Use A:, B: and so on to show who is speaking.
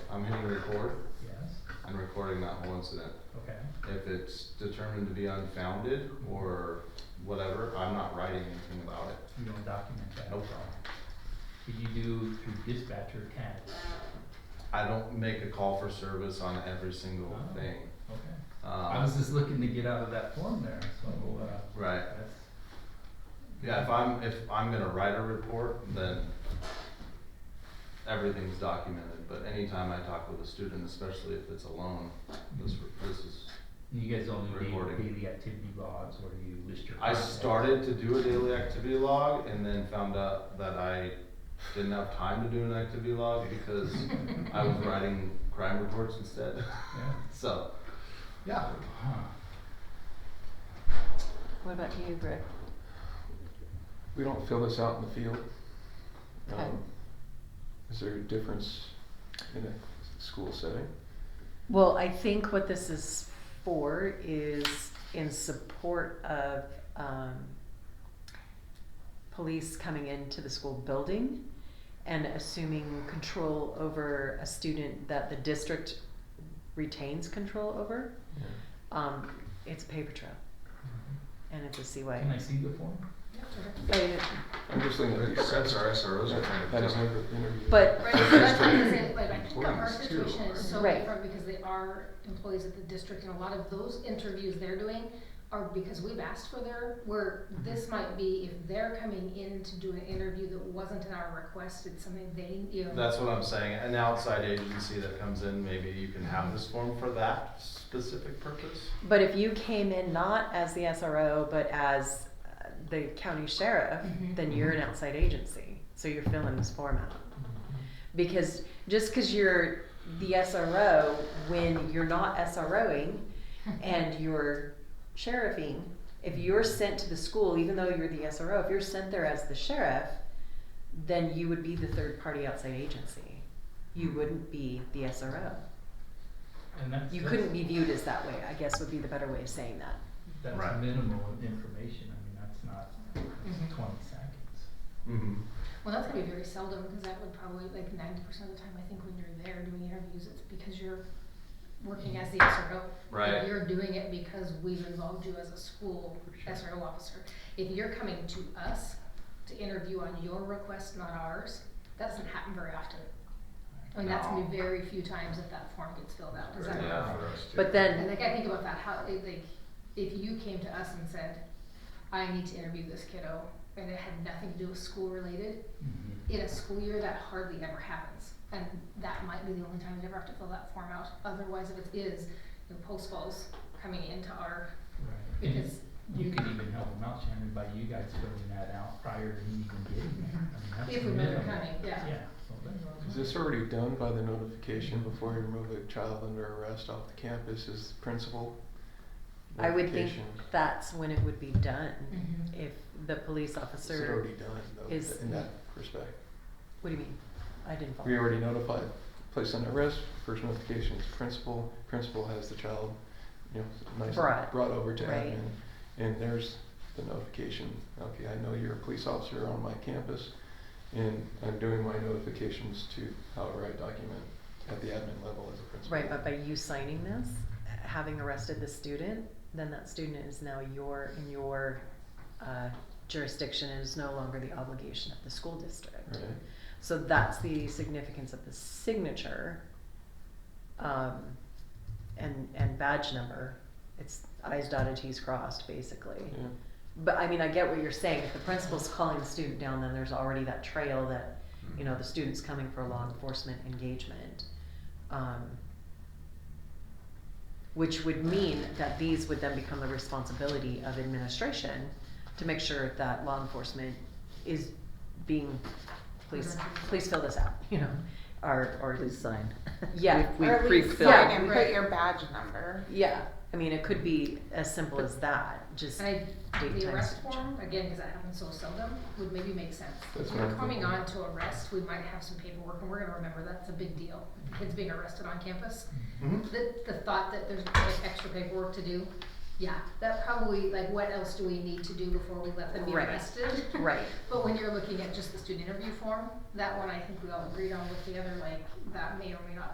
A: I'm hitting record
B: Yes,
A: and recording that whole incident.
B: okay,
A: If it's determined to be unfounded or whatever, I'm not writing anything about it.
B: you don't document that at all.
A: Nope.
B: Did you do through dispatch or CAD?
A: I don't make a call for service on every single
B: Oh.
A: thing.
B: Okay. I was
A: Um,
B: just looking to get out of that form there, so, uh,
A: right,
B: that's,
A: yeah, if I'm, if I'm gonna write a report, then everything's documented, but anytime I talk with a student, especially if it's alone, this, this is
B: you guys only do
A: Recording.
B: daily activity logs where you list your.
A: I
B: contacts.
A: started to do a daily activity log and then found out that I didn't have time to do an activity log because I was writing crime reports instead.
B: Yeah, Uh-huh.
A: So, yeah,
B: huh,
C: What about you, Rick?
D: We don't fill this out in the field.
C: Okay.
D: Um, Is there a difference in a school setting?
C: Well, I think what this is for is in support of, um, police coming into the school building and assuming control over a student that the district retains control over.
D: Yeah.
C: Um, it's a paper trail and it's a Oh, CY.
B: can I see the form?
C: I-
D: I'm just looking at these sets.
A: our SROs are kind of
D: I don't
A: just-
D: have the interview.
C: But-
E: Right, so that's what I'm saying, like, I think our
A: Employees too,
E: situation is so
C: right.
E: different because they are employees of the district and a lot of those interviews they're doing are because we've asked for their, where this might be if they're coming in to do an interview that wasn't in our request, it's something they, you know.
A: that's what I'm saying. An outside agency that comes in, maybe you can have this form for that specific purpose.
C: But if you came in not as the SRO, but as uh, the county sheriff,
E: Mhm.
C: then you're an outside agency. So you're filling this form out. Because just because you're the SRO, when you're not SROing and you're sheriffing, if you're sent to the school, even though you're the SRO, if you're sent there as the sheriff, then you would be the third party outside agency. You wouldn't be the SRO.
B: And that's,
C: You
B: that's-
C: couldn't be viewed as that way, I guess would be the better way of saying that.
B: That's
A: Right.
B: minimal information, I mean, that's not
E: Mhm.
B: twenty seconds.
A: Mm-hmm.
E: Well, that's gonna be very seldom, cause that would probably, like ninety percent of the time, I think when you're there doing interviews, it's because you're working as the SRO.
A: Right.
E: You're doing it because we've involved you as a school
B: For sure.
E: SRO officer. If you're coming to us to interview on your request, not ours, that doesn't happen very often. I mean, that's gonna be
A: No.
E: very few times that that form gets filled out, does that?
A: Yeah, for us
C: But
E: And
C: then,
E: like, I think about that, how, it, like, if you came to us and said, I need to interview this kiddo, and it had nothing to do with school related,
B: Mhm.
E: in a school year, that hardly ever happens. And that might be the only time you ever have to fill that form out. Otherwise, if it is, you know, post falls coming into our,
B: Right. And
E: because,
B: You could even help them out, Shannon, by you guys filling that out prior to me even getting there. I mean, that's
E: If we remember
B: minimal.
E: coming, yeah.
B: Yeah. so that's not
D: Is
B: much.
D: this already done by the notification before you remove a child under arrest off the campus is the principal?
C: I would think
D: notification?
C: that's when it would be done.
E: Mhm.
C: If the police
D: Is it
C: officer,
D: already done
C: is-
D: though, in that respect?
C: what do you mean? I didn't follow.
D: We already notified, placed under arrest, first notification is principal, principal has the child, you know, nice,
C: Brought,
D: brought over to
C: right.
D: admin. And there's the notification, okay, I know you're a police officer on my campus, and I'm doing my notifications to however I document at the admin level as a principal.
C: Right, but by you signing this, having arrested the student, then that student is now your, in your uh, jurisdiction and is no longer the obligation of the school district.
D: Right,
C: So that's the significance of the signature, um, and, and badge number. It's I's dotted, T's crossed, basically.
D: yeah.
C: But I mean, I get what you're saying. If the principal's calling the student down, then there's already that trail that, you know, the student's coming for law enforcement engagement. Um, which would mean that these would then become the responsibility of administration to make sure that law enforcement is being, please, please fill this out, you know, or, or.
F: Please sign.
C: Yeah.
F: We
G: Or at least
F: pre-fill.
C: yeah.
G: sign and
E: Right.
G: put your badge number.
C: Yeah, I mean, it could be as simple as that, just.
E: and I,
C: Date,
E: the
C: time,
E: arrest
C: signature.
E: form, again, because that happens so seldom, would maybe make sense.
D: That's
E: If
D: what
E: we're
D: I'm
E: coming
D: thinking.
E: on to arrest, we might have some paperwork, and we're gonna remember that's a big deal. If a Kids being arrested on campus.
A: Mm-hmm.
E: The, the thought that there's like extra paperwork to do, yeah, that probably, like, what else do we need to do before we let them be
C: Right.
E: arrested?
C: Right.
E: But when you're looking at just the student interview form, that one I think we all agreed on with the other, like, that may or may not